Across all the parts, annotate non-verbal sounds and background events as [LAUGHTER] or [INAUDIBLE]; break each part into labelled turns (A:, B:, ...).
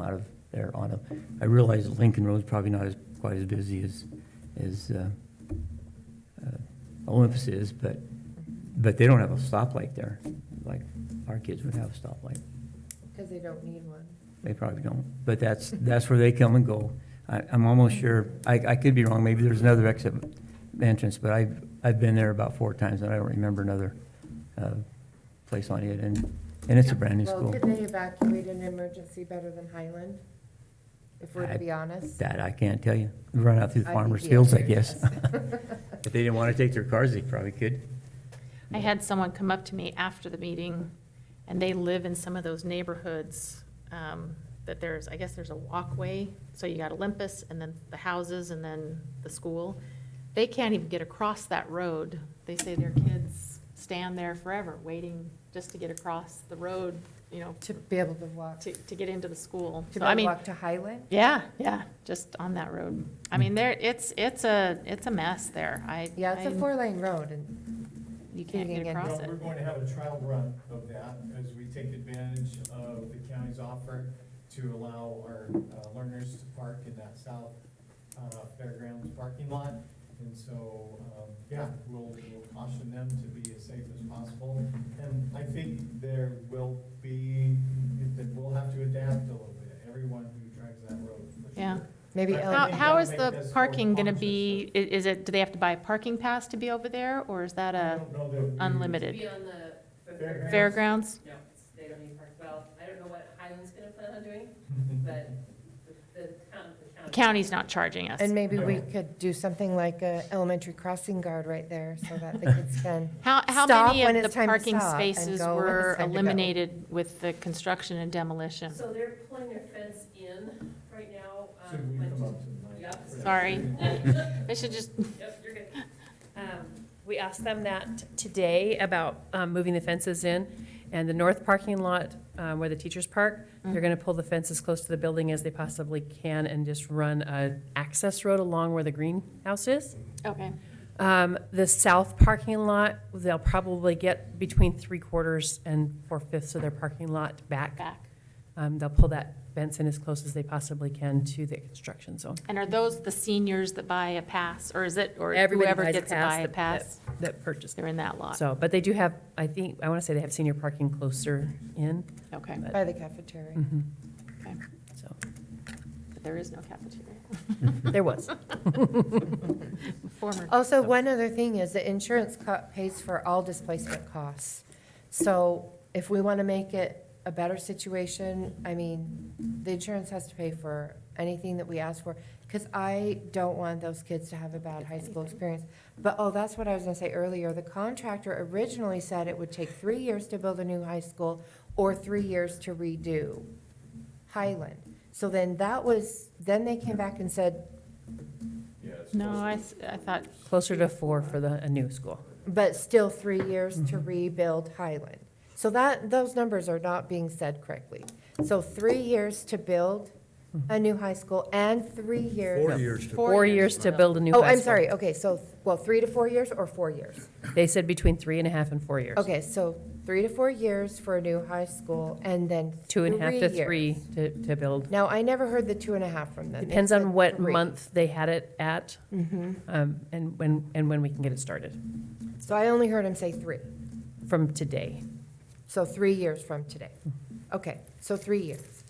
A: out of there on a, I realize Lincoln Road's probably not as, quite as busy as, as uh, uh, Olympus is, but, but they don't have a stoplight there, like our kids would have a stoplight.
B: Because they don't need one.
A: They probably don't, but that's, that's where they come and go. I, I'm almost sure, I, I could be wrong, maybe there's another exit entrance, but I've, I've been there about four times and I don't remember another, uh, place on it and, and it's a brand new
B: Well,
A: school.
B: could they evacuate an emergency better than Highland? If we're
A: I-
B: to be honest?
A: That I can't tell you. Run out through the
B: I think
A: farmer's
B: the
A: fields, I
B: answer is
A: guess. [LAUGHS] If they didn't want to take their cars, they probably could.
C: I had someone come up to me after the meeting, and they live in some of those neighborhoods um, that there's, I guess there's a walkway, so you got Olympus, and then the houses, and then the school. They can't even get across that road. They say their kids stand there forever, waiting just to get across the road, you know,
B: [LAUGHS] To be able to walk, to
C: to, to get into the school.
B: be
C: So I
B: able to
C: mean,
B: walk to Highland?
C: yeah, yeah, just on that road. I mean, there, it's, it's a, it's a mess there. I.
B: Yeah, it's a
C: I-
B: four-lane road, and
C: You can't
B: Digging
C: get
B: in.
C: across
D: Well,
C: it.
D: we're going to have a trial run of that as we take advantage of the county's offer to allow our uh, learners to park in that south uh, fairgrounds parking lot. And so, um, yeah, we'll we'll caution them to be as safe as possible. And I think there will be, that we'll have to adapt a little bit, everyone who drives that road for
C: Yeah.
D: sure.
B: maybe,
C: How,
D: But-
B: ele-
D: think
C: how
D: that'll
C: is
D: make
C: the
D: this more
C: parking gonna
D: conscious
C: be, i- is it, do they have to buy a parking pass to be over there, or is that
D: I
C: a
D: don't know that we-
C: unlimited
E: Be on the.
D: Fairgrounds.
C: fairgrounds?
E: No, it's- they don't need park, well, I don't know what Highland's gonna plan on doing, but the, the town, the county.
C: County's not charging us.
B: and maybe we
D: Yeah.
B: could do something like a elementary crossing guard right there, so that the
A: [LAUGHS]
B: kids can,
C: How, how
B: Stop
C: many
B: when
C: of the
B: it's time to
C: parking
B: stop and
C: spaces
B: go when
C: were
B: it's time to go.
C: eliminated with the construction and demolition?
E: So they're pulling their fence in right now.
D: [LAUGHS]
E: um,
D: Should we
E: like
D: come
E: just-
D: up to the mic?
E: Yep.
C: Sorry. I should just,
E: Yep, you're good. Um, We asked them that today about um, moving the fences in, and the north parking lot um, where the teachers park, they're going to pull the fence as close to the building as they possibly can and just run a access road along where the greenhouse is.
C: okay,
E: Um, The south parking lot, they'll probably get between three quarters and four fifths of their parking lot back.
C: back.
E: Um, They'll pull that fence in as close as they possibly can to the construction zone.
C: And are those the seniors that buy a pass, or is it, or
E: Everybody
C: whoever
E: buys a
C: gets to
E: pass
C: buy a
E: that-
C: pass?
E: That purchased.
C: They're in that lot,
E: So, but they do have, I think, I want to say they have senior parking closer in,
C: okay,
B: by the cafeteria.
C: okay,
E: so,
C: but there is no cafeteria,
E: there was.
C: former.
B: Also, one other thing is the insurance co- pays for all displacement costs. So if we want to make it a better situation, I mean, the insurance has to pay for anything that we ask for. Because I don't want those kids to have a bad high school experience. But, oh, that's what I was going to say earlier. The contractor originally said it would take three years to build a new high school or three years to redo Highland. So then that was, then they came back and said,
D: Yeah, it's
C: No,
D: close.
C: I, s- I thought,
E: Closer to four for the, a new school.
B: but still three years to rebuild Highland. So that, those numbers are not being said correctly. So three years to build a new high school and three years.
F: years to.
E: Four years to build a new high
B: Oh, I'm
E: school.
B: sorry, okay, so, well, three to four years or four years?
E: They said between three and a half and four years.
B: Okay, so three to four years for a new high school and then
E: Two and a half to
B: years.
E: three to, to build.
B: Now, I never heard the two and a half from them. They
E: Depends
B: said
E: on what
B: three. Mm-hmm.
E: month they had it at, um, and when, and when we can get it started,
B: So I only heard him say three,
E: from today.
B: so three years from today. Okay, so three years.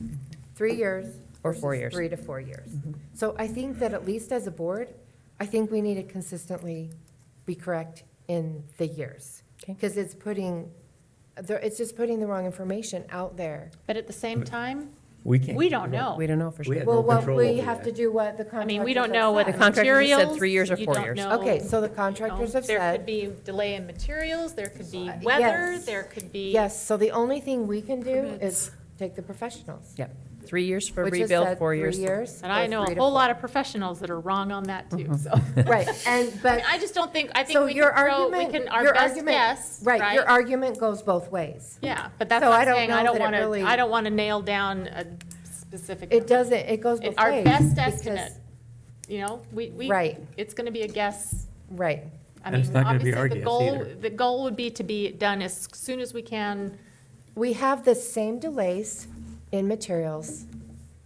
B: Three years,
E: Or four
B: versus
E: years. Mm-hmm.
B: Three to four years. So I think that at least as a board, I think we need to consistently be correct in the years.
E: Okay.
B: Because it's putting, there- it's just putting the wrong information out there.
C: but at the same time,
A: We can't.
C: we don't know.
E: We don't know for
A: We
E: sure.
A: have
B: Well,
A: no
B: what
A: control
B: we
A: over
B: have to
A: that.
B: do what the
C: I
B: contractors
C: mean, we don't
B: have
C: know what the
B: said.
E: contractor
C: materials.
E: just said three years or
C: you
E: four
C: don't
E: years.
C: know,
B: Okay, so the
C: you know,
B: contractors have
C: There could
B: said,
C: be delay in materials, there could be
B: Uh,
C: weather,
B: yes.
C: there could be.
B: yes, so the only thing we can do is take the professionals.
E: Yep, three years for
B: which has
E: rebuild,
B: said
E: four
B: three
E: years.
B: years.
C: And I
B: or
C: know
B: three
C: a
B: to
C: whole
B: four. Mm-hmm.
C: lot of professionals that are wrong on that too, so.
B: [LAUGHS] Right, and, but.
C: [LAUGHS] I just don't think, I
B: So
C: think we
B: your
C: can throw, we
B: argument-
C: can, our
B: your
C: best
B: argument-
C: guess,
B: Right, your argument goes both ways.
C: Yeah, but that's
B: So
C: what
B: I
C: I'm
B: don't
C: saying,
B: know
C: I don't
B: that it
C: want
B: really-
C: to, I don't want to nail down a specific.
B: It
C: number.
B: doesn't, it goes both
C: It-
B: ways.
C: Our best
B: because-
C: estimate, you know, we, we.
B: Right.
C: It's going to be a guess.
B: Right,
C: I
A: And it's
C: mean,
A: not gonna be
C: obviously,
A: our
C: the
A: guess
C: goal,
A: either.
C: the goal would be to be done as soon as we can
B: we have the same delays in materials